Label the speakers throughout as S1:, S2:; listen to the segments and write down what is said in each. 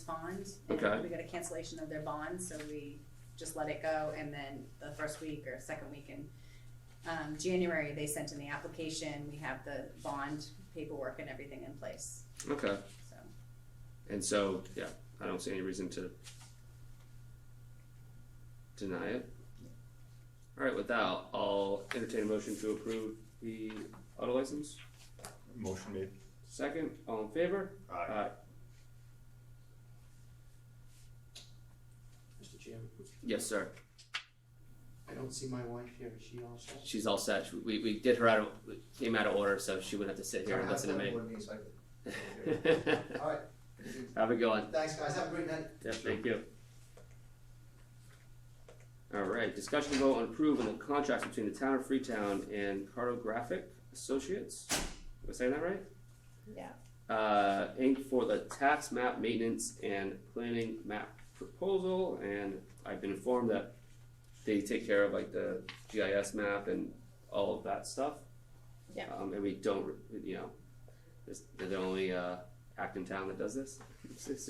S1: respond.
S2: Okay.
S1: And we got a cancellation of their bond, so we just let it go, and then the first week or second week in um, January, they sent in the application, we have the bond paperwork and everything in place,
S2: Okay,
S1: so.
S2: and so, yeah, I don't see any reason to deny it. Alright, with that, I'll- I'll entertain a motion to approve the auto license.
S3: Motion made.
S2: Second, all in favor? Aye.
S4: Mr. Chairman,
S2: Yes, sir.
S4: I don't see my wife here, is she also?
S2: She's all set. We, we did her out of, came out of order, so she wouldn't have to sit here and listen to
S5: Sorry, I have
S2: me.
S5: one meeting, so I could- All right.
S2: Have a good one.
S5: Thanks, guys. Have a great night.
S2: Yeah, thank you. Alright, discussion and vote on approving the contract between the town of Freetown and Cartographic Associates, am I saying that right?
S6: Yeah.
S2: Uh, Inc. for the tax map maintenance and planning map proposal, and I've been informed that they take care of like the GIS map and all of that stuff.
S6: Yeah.
S2: Um, and we don't, you know, this, they're the only, uh, act in town that does this,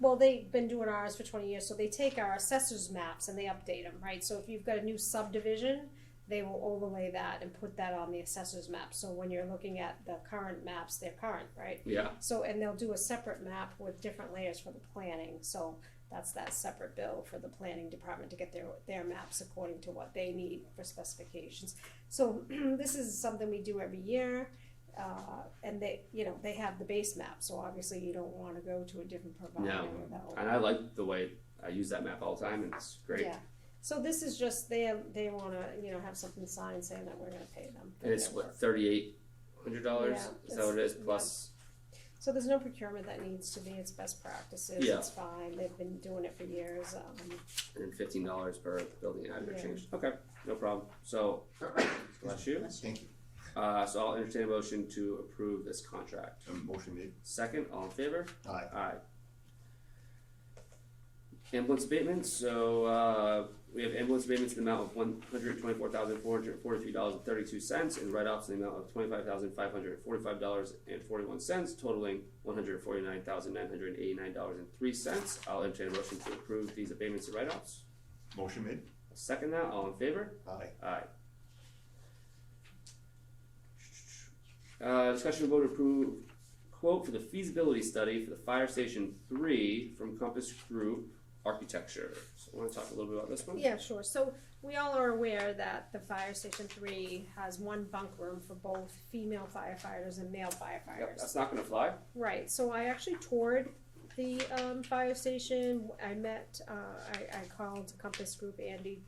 S6: Well, they've been doing ours for twenty years, so they take our assessors maps and they update them, right? So if you've got a new subdivision, they will overlay that and put that on the assessors map, so when you're looking at the current maps, they're current, right?
S2: yeah,
S6: So, and they'll do a separate map with different layers for the planning, so that's that separate bill for the planning department to get their, their maps according to what they need for specifications. So this is something we do every year, uh, and they, you know, they have the base map, so obviously you don't wanna go to a different provider
S2: No.
S6: without.
S2: And I like the way I use that map all the time, and it's great.
S6: Yeah, so this is just, they, they wanna, you know, have something signed saying that we're gonna pay them. for
S2: And it's
S6: their work.
S2: what thirty eight hundred dollars.
S6: Yeah,
S2: Is that what it is?
S6: it's-
S2: Plus,
S6: So there's no procurement that needs to be, it's best practices,
S2: Yeah.
S6: it's fine, they've been doing it for years, um,
S2: and then fifteen dollars per building average
S6: Yeah.
S2: change. Okay, no problem. So, bless you.
S5: Thank you.
S2: Uh, so I'll entertain a motion to approve this contract.
S3: Um, Motion made.
S2: Second, all in favor?
S3: Aye.
S2: Aye. Ambulance abatement, so, uh, we have ambulance abatements in the amount of one hundred twenty-four thousand, four hundred forty-three dollars and thirty-two cents, and write-offs in the amount of twenty-five thousand, five hundred forty-five dollars and forty-one cents, totaling one hundred forty-nine thousand, nine hundred eighty-nine dollars and three cents. I'll entertain a motion to approve these abatements and write-offs.
S3: Motion made.
S2: I'll Second that, all in favor?
S3: Aye.
S2: Aye. Uh, discussion of vote to approve quote for the feasibility study for the fire station three from Compass Group Architecture. So I wanna talk a little bit about this one?
S6: Yeah, sure. So we all are aware that the fire station three has one bunk room for both female firefighters and male
S2: Yep,
S6: firefighters.
S2: that's not gonna fly.
S6: Right, so I actually toured the, um, fire station. I met, uh, I, I called Compass Group Andy,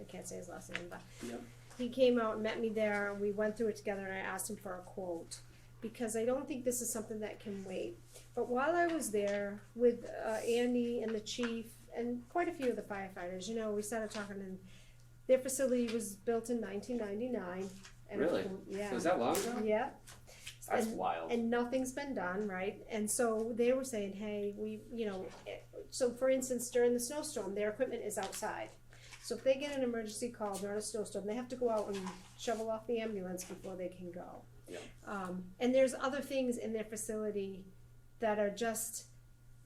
S6: I can't say his last name, but
S2: Yep.
S6: he came out and met me there, and we went through it together, and I asked him for a quote. Because I don't think this is something that can wait. But while I was there with uh, Andy and the chief and quite a few of the firefighters, you know, we started talking, and their facility was built in 1999. And
S2: Really?
S6: Yeah.
S2: So is that long ago?
S6: yeah.
S2: That's
S6: And-
S2: wild.
S6: and nothing's been done, right? And so they were saying, hey, we, you know, eh, so for instance, during the snowstorm, their equipment is outside. So if they get an emergency call during a snowstorm, they have to go out and shovel off the ambulance before they can go.
S2: Yeah.
S6: Um, and there's other things in their facility that are just,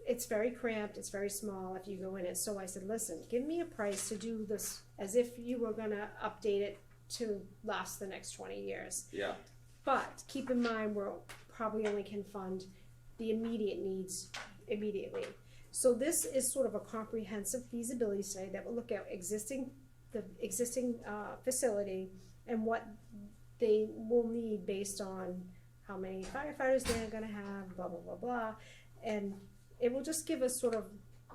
S6: it's very cramped, it's very small if you go in it. So I said, listen, give me a price to do this as if you were gonna update it to last the next twenty years.
S2: Yeah,
S6: But keep in mind, we're probably only can fund the immediate needs immediately. So this is sort of a comprehensive feasibility study that will look at existing, the existing uh, facility and what they will need based on how many firefighters they're gonna have, blah, blah, blah, blah. And it will just give us sort of,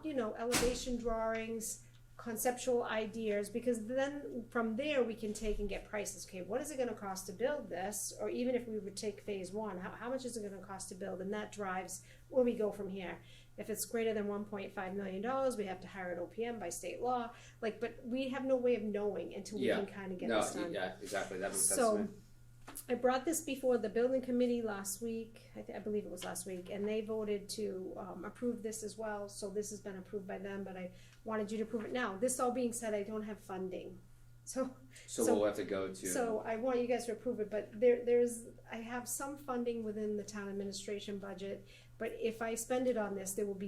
S6: you know, elevation drawings, conceptual ideas, because then from there, we can take and get prices. Okay, what is it gonna cost to build this? Or even if we would take phase one, how, how much is it gonna cost to build? And that drives where we go from here. If it's greater than one point five million dollars, we have to hire an OPM by state law, like, but we have no way of knowing until we
S2: Yeah.
S6: can kinda get
S2: no,
S6: this done.
S2: yeah, exactly, that makes sense to me.
S6: So, I brought this before the building committee last week, I, thi- I believe it was last week, and they voted to, um, approve this as well, so this has been approved by them, but I wanted you to approve it now. This all being said, I don't have funding, so,
S2: So
S6: so-
S2: we'll have to go to.
S6: so I want you guys to approve it, but there, there's, I have some funding within the town administration budget, but if I spend it on this, there will be